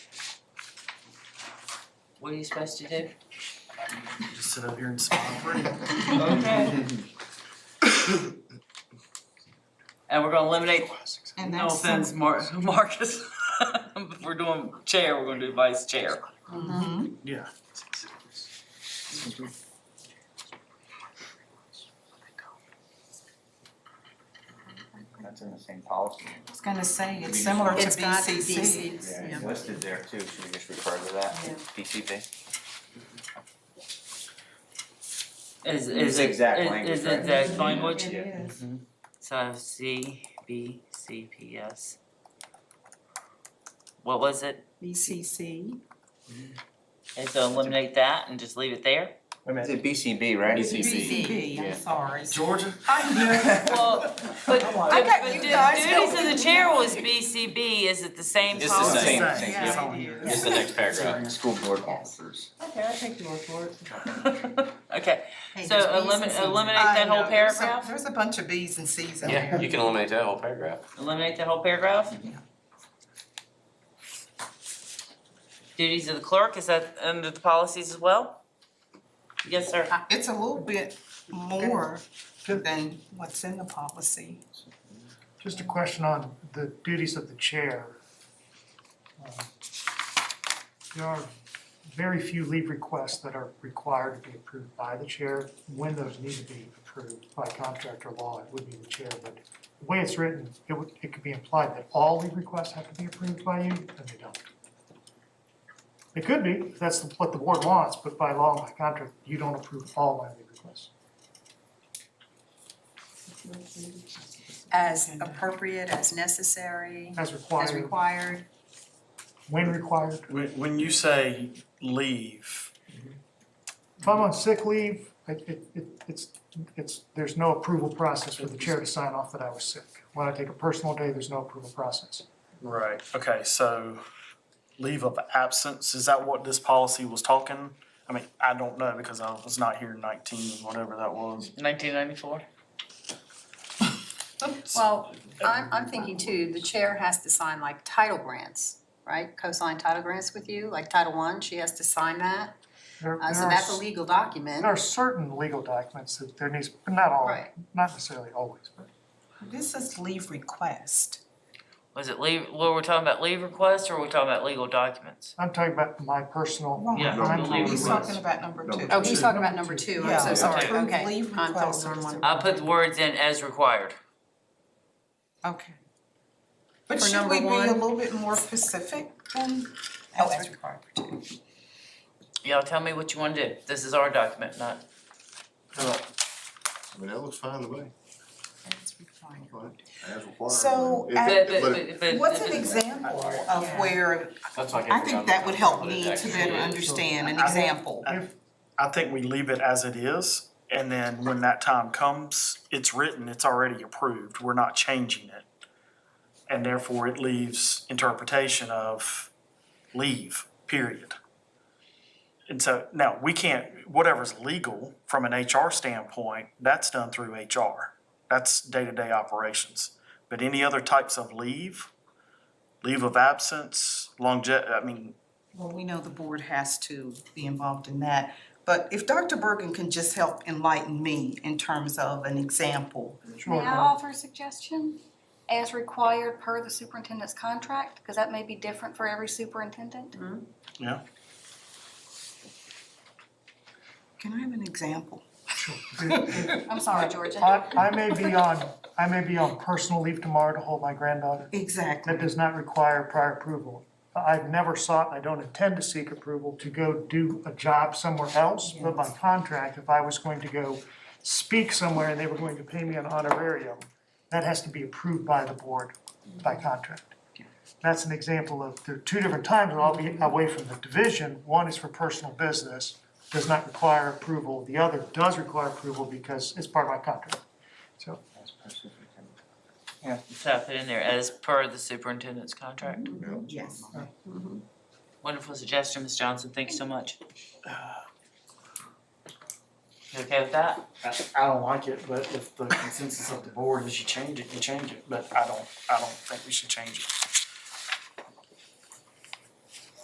What are you supposed to do? Just sit up here and smile for it. And we're gonna eliminate, And no that's offense, Mar- Marcus, if we're doing chair, we're gonna do vice chair. Mhm. Yeah. That's in the same policy. I was gonna say, it's It's similar to It's got to be BCC. seats, Yeah, yeah. it's listed there too, should we just refer to that, Yeah. PCB? Is It's is it, exact is language, is right? it exact language? It Yeah. is. So C B C P S. What was it? BCC. And so eliminate that and just leave it there? It's a BCB, right? BCB, Yeah. I'm sorry. Georgia? Well, but I got you guys duties of the chair was B C B, is it the same It's the policy? same. same, It's yeah. on here. It's the next paragraph. School board officers. Okay, I'll take your report. Okay, Hey, so there's Bs and eliminate Cs. eliminate that whole I know, there's a- paragraph? There's a bunch of Bs and Cs in Yeah, there. you can eliminate that whole paragraph. Eliminate the whole paragraph? Duties of the clerk, is that under the policies as well? Yes, sir. It's a little bit more than what's in the policy. Just a question on the duties of the chair. Um, There are very few leave requests that are required to be approved by the chair. When those need to be approved by contract or law, it would be the chair, but the way it's written, it would, it could be implied that all leave requests have to be approved by you, and they don't. It could be, if that's what the board wants, but by law and by contract, you don't approve all my leave requests. As uh, appropriate, as necessary, As as required, required. when required, When, when you say leave, If I'm on sick leave, it, it, it- it's, it's, there's no approval process for the chair to sign off that I was sick. When I take a personal day, there's no approval process. right, okay, so leave of absence, is that what this policy was talking? I mean, I don't know because I was not here in nineteen, whatever that was. Nineteen ninety-four. Well, I'm, I'm thinking too, the chair has to sign like title grants, right? Co-sign title grants with you, like Title One, she has to sign that. There, Uh, there so are, that's a s- legal there document. are certain legal documents that there needs, but not all, Right. not necessarily always, but. This is leave request. Was it leave, were we talking about leave requests or were we talking about legal documents? I'm talking about my personal, Wrong. Yeah, I'm the leave He's request. talking about number two. Oh, he's talking about number two, I'm so Yeah, sorry, approved okay. leave I'm request. focused on one. I put the words in as required. Okay. But For should number we be one? a little bit more specific than? Oh, as required for two. Y'all tell me what you wanna do. This is our document, not, I mean, that looks fine to me, As required. as required. So, It- at- but, it- but but, it- but. What's an example of Yeah. where, That's like I think that would help me to actually better is. understand an I- example. if, I think we leave it as it is, and then when that time comes, it's written, it's already approved, we're not changing it. And therefore, it leaves interpretation of leave, period. And so, now, we can't, whatever's legal from an HR standpoint, that's done through HR. That's day-to-day operations. But any other types of leave, leave of absence, longe, I mean, Well, we know the board has to be involved in that, but if Dr. Bergen can just help enlighten me in terms of an example. May sure, I offer a suggestion? As required per the superintendent's contract, because that may be different for every superintendent. Mm-hmm. yeah. Can I have an example? I'm sorry, Georgia. I, I may be on, I may be on personal leave tomorrow to hold my granddaughter. Exactly. That does not require prior approval. I've never sought, and I don't intend to seek approval to go do a job somewhere else, but by contract, if I was going to go speak somewhere and they were going to pay me an honorarium, that has to be approved by the board by contract. That's an example of, there are two different times where I'll be away from the division. One is for personal business, does not require approval. The other does require approval because it's part of my contract. So That's perfect. So I put in there as per the superintendent's contract. Yes. Wonderful suggestion, Ms. Johnson, thank you so much. You okay with that? I, I don't like it, but if the consensus of the board is you change it, you change it, but I don't, I don't think we should change it.